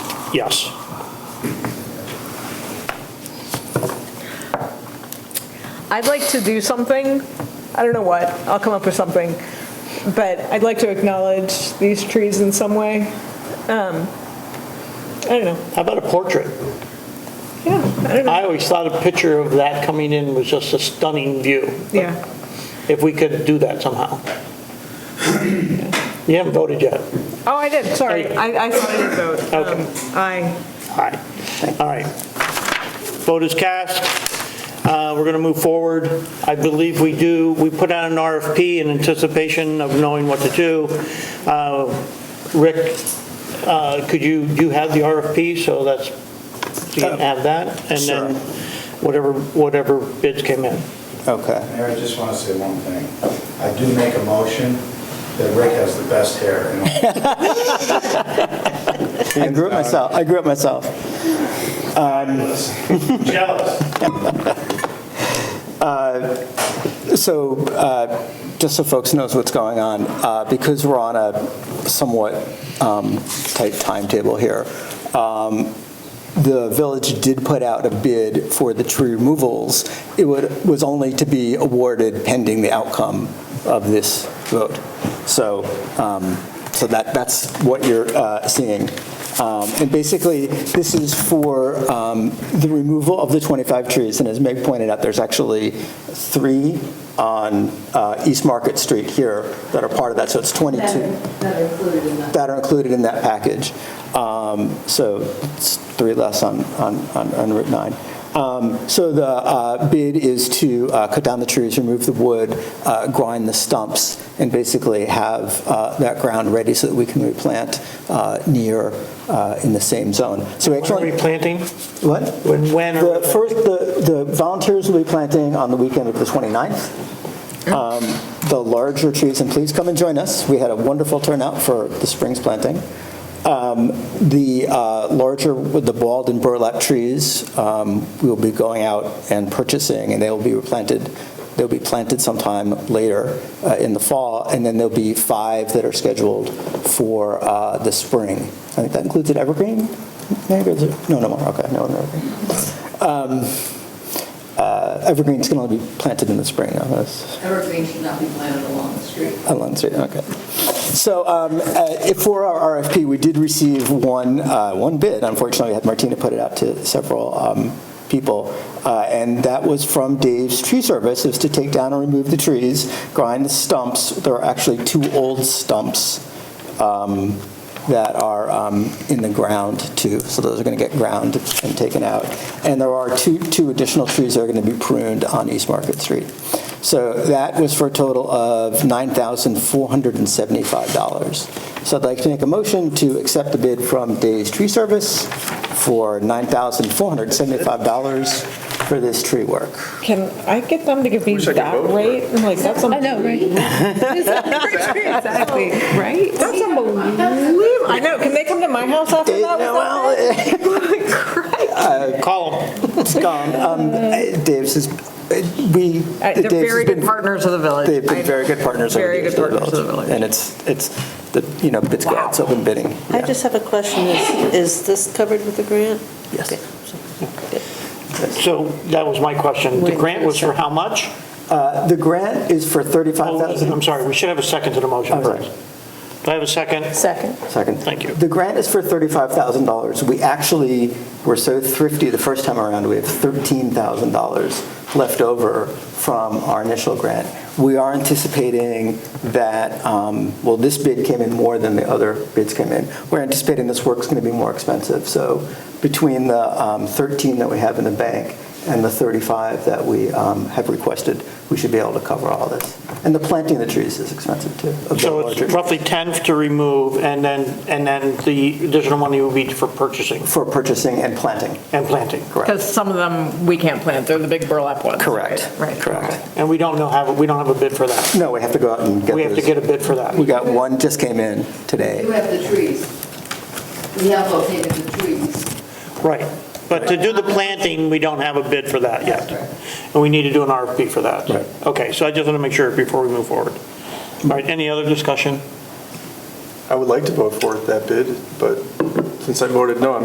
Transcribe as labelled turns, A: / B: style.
A: Yes.
B: I'd like to do something. I don't know what. I'll come up with something. But I'd like to acknowledge these trees in some way. Um, I don't know.
A: How about a portrait?
B: Yeah, I don't know.
A: I always thought a picture of that coming in was just a stunning view.
B: Yeah.
A: If we could do that somehow. You haven't voted yet.
B: Oh, I did, sorry. I, I thought I did vote.
A: Okay.
B: Um, Aye.
A: All right, all right. Vote is cast. Uh, We're going to move forward. I believe we do, we put out an RFP in anticipation of knowing what to do. Uh, Rick, uh, could you, you have the RFP, so that's, you can have that? And then
C: Uh, Sure.
A: whatever, whatever bids came in.
C: Okay.
D: Mayor, I just want to say one thing. I do make a motion that Rick has the best hair in all
C: I grew up myself. I grew up myself. Um,
A: Jealous.
C: So uh, just so folks knows what's going on, uh, because we're on a somewhat um, tight timetable here, um, the village did put out a bid for the tree removals. It would- was only to be awarded pending the outcome of this vote. So, um, so that, that's what you're uh, seeing. Um, And basically, this is for um, the removal of the 25 trees. And as Meg pointed out, there's actually three on uh, East Market Street here that are part of that, so it's 22
E: that are included in that.
C: that are included in that package. Um, So it's three less on, on, on on Route 9. Um, So the uh, bid is to uh, cut down the trees, remove the wood, uh, grind the stumps, and basically have uh, that ground ready so that we can replant uh, near, uh, in the same zone. So we
A: When are
C: actually.
A: we planting?
C: What?
A: When, when? are-
C: The first, the, the volunteers will be planting on the weekend of the 29th.
A: Oh.
C: Um, The larger trees, and please come and join us. We had a wonderful turnout for the spring's planting. Um, The uh, larger, with the bald and burlap trees, um, we'll be going out and purchasing, and they will be replanted, they'll be planted sometime later uh, in the fall, and then there'll be five that are scheduled for uh, the spring. I think that includes an evergreen, maybe, is it- no, no more, okay, no, no evergreen. Um, uh, Evergreen's can only be planted in the spring, though, that's
E: Evergreen should not be planted along the street.
C: Allen Street, okay. So um, uh, if for our RFP, we did receive one, uh, one bid, unfortunately, we had Martina put it out to several um, people, uh, and that was from Dave's Tree Service, is to take down and remove the trees, grind the stumps, there are actually two old stumps um, that are um, in the ground too, so those are going to get ground and taken out. And there are two, two additional trees that are going to be pruned on East Market Street. So that was for a total of $9,475. So I'd like to make a motion to accept the bid from Days Tree Service for $9,475 for this tree work.
B: Can I get them to give me that rate? Like, that's
F: I know, right?
B: Exactly, right? That's unbelievable. I know, can they come to my house after that?
C: Well,
A: Call them.
C: it's gone. Um, Dave's is, we.
B: Uh, They're
C: Dave's has
B: very good
C: been-
B: partners of the village.
C: They've
B: I-
C: been very good partners over the
B: Very
C: years.
B: good partners of the village.
C: And it's, it's, the you know, it's good, it's open bidding.
G: I
C: Yeah.
G: just have a question. Is, is this covered with the grant?
C: Yes.
G: Okay.
A: So that was my question. The
G: Wait,
A: grant was for how much?
C: Uh, The grant is for
A: Oh, I'm
C: $35,000.
A: sorry, we should have a second to the motion
C: I'm sorry.
A: first. Do I have a second?
G: Second.
C: Second.
A: Thank you.
C: The grant is for $35,000. We actually were so thrifty the first time around, we have $13,000 left over from our initial grant. We are anticipating that, um, well, this bid came in more than the other bids came in. We're anticipating this work's going to be more expensive. So between the um, 13 that we have in the bank and the 35 that we um, have requested, we should be able to cover all this. And the planting of the trees is expensive too. of the
A: So it's
C: larger-
A: roughly 10 to remove, and then, and then the additional money will be for purchasing
C: For purchasing and planting.
A: and planting.
B: Because some of them we can't plant, they're the big burlap ones.
C: Correct.
B: Right.
C: Correct.
A: And we don't know, have, we don't have a bid for that.
C: No, we have to go out and get
A: We have to
C: those.
A: get a bid for that.
C: We got one just came in today.
E: You have the trees. We have located the trees.
A: Right. But to do the planting, we don't have a bid for that yet. And we need to do an RFP for that.
C: Right.
A: Okay, so I just want to make sure before we move forward. All right, any other discussion?
H: I would like to vote for that bid, but since I voted no, I'm